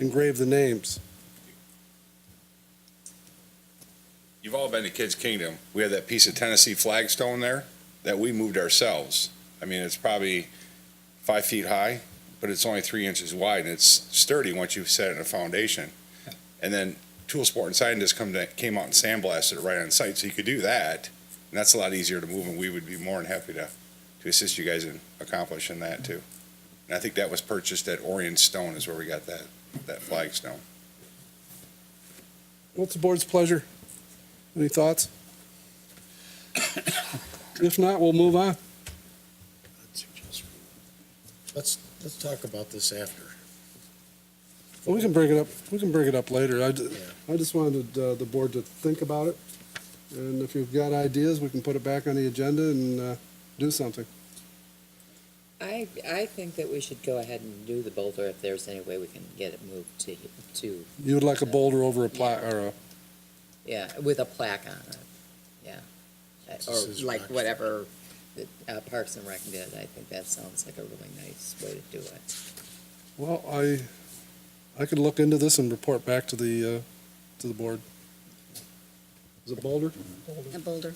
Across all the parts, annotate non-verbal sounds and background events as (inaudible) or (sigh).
engrave the names. You've all been to Kids Kingdom. We have that piece of Tennessee flagstone there that we moved ourselves. I mean, it's probably five feet high, but it's only three inches wide and it's sturdy once you've set it in a foundation. And then Tool Sport and Sign just come to, came out and sandblasted it right on site, so you could do that. And that's a lot easier to move and we would be more than happy to, to assist you guys in accomplishing that too. And I think that was purchased at Orion Stone is where we got that, that flagstone. What's the board's pleasure? Any thoughts? (coughs) If not, we'll move on. I'd suggest we- Let's, let's talk about this after. We can bring it up, we can bring it up later. I, ju- I just wanted uh, the board to think about it. And if you've got ideas, we can put it back on the agenda and uh, do something. I, I think that we should go ahead and do the boulder if there's any way we can get it moved to, to, You would like a boulder over a plat, or a, yeah, with a plaque on it, yeah. Uh, This is Or like Rock's. whatever the, uh, Parks and Rec did, I think that sounds like a really nice way to do it. well, I, I could look into this and report back to the, uh, to the board. Is it boulder? A boulder.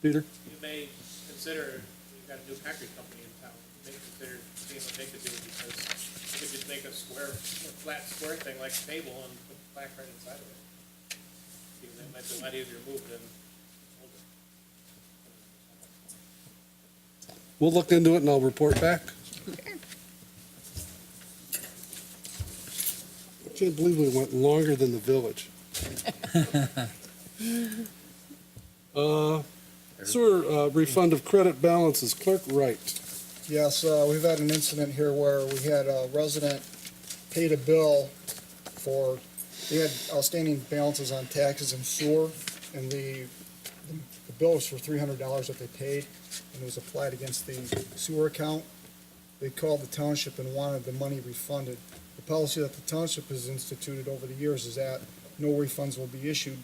Peter? you may consider, you've got a new concrete company in town, you may consider seeing what they could do, because you could just make a square, a flat square thing like a table and put the plaque right inside of it. Because that might be a lot easier to move than hold it. We'll look into it and I'll report back. I can't believe we went longer than the village. Uh, Sewer uh, refund of credit balances, clerk Wright. Yes, uh, we've had an incident here where we had a resident paid a bill for, they had outstanding balances on taxes and sewer, and the, the bill was for three hundred dollars that they paid, and it was applied against the sewer account. They called the township and wanted the money refunded. The policy that the township has instituted over the years is that no refunds will be issued,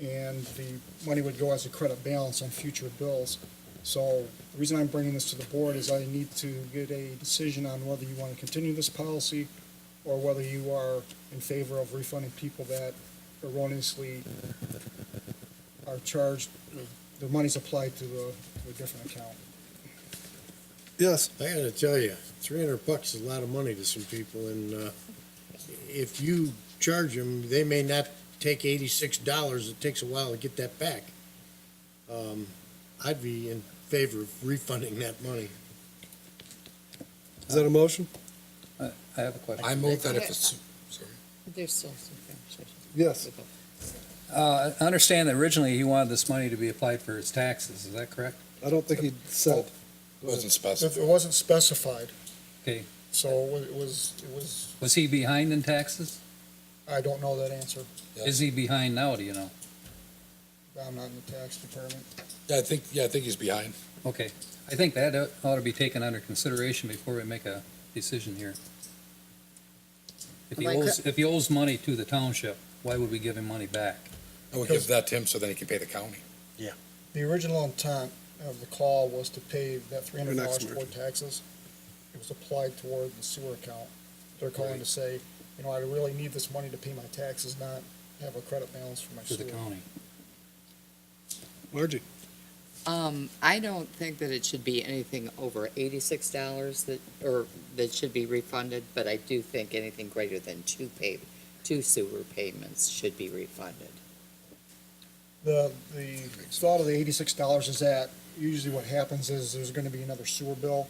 and the money would go as a credit balance on future bills. So the reason I'm bringing this to the board is I need to get a decision on whether you want to continue this policy or whether you are in favor of refunding people that erroneously are charged, their money's applied to a, to a different account. Yes, I gotta tell you, three hundred bucks is a lot of money to some people, and, uh, if you charge them, they may not take eighty-six dollars, it takes a while to get that back. Um, I'd be in favor of refunding that money. is that a motion? I have a question. I move that if it's. There's still some conversation. Yes. Uh, I understand that originally he wanted this money to be applied for his taxes, is that correct? I don't think he said. Wasn't If it wasn't specified. Okay. So it was, it was, Was he behind in taxes? I don't know that answer. Is he behind now, do you know? I'm not in the tax department. I think, yeah, I think he's behind. Okay, I think that ought to be taken under consideration before we make a decision here. If he Like- owes, if he owes money to the township, why would we give him money back? I would give that to him so then he can pay the county. The original intent of the call was to pay that three hundred dollars next toward taxes. It was applied toward the sewer account. They're calling to say, you know, I really need this money to pay my taxes, not have a credit balance for my To the sewer. county. Margie? Um, I don't think that it should be anything over eighty-six dollars that, or that should be refunded, but I do think anything greater than two pay, two sewer payments should be refunded. The, the thought of the eighty-six dollars is that usually what happens is there's gonna be another sewer bill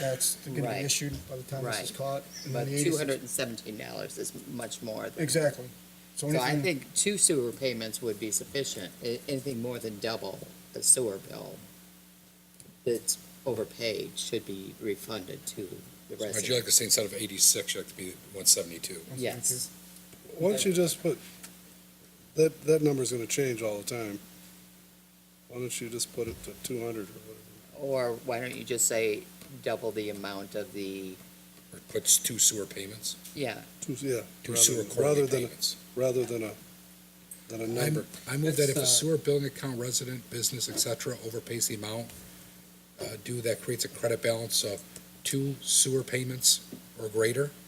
that's gonna be Right. issued by the time this is Right. caught. and then But the 86 two hundred and seventeen dollars is much more than. Exactly. So So I anything- think two sewer payments would be sufficient, A- anything more than double the sewer bill that's overpaid should be refunded to the Would you like resident. to see instead of eighty-six, you'd like to be one seventy-two? Yes, Why don't you just put, that, that number's gonna change all the time. Why don't you just put it to two hundred or whatever? or why don't you just say double the amount of the, Or puts two sewer payments, yeah, Two, yeah. two rather- sewer rather quarterly than a- payments. rather than a, than a I number. I move that if a It's, uh, sewer billing account resident, business, et cetera, overpays the amount uh, due, that creates a credit balance of two sewer payments or greater,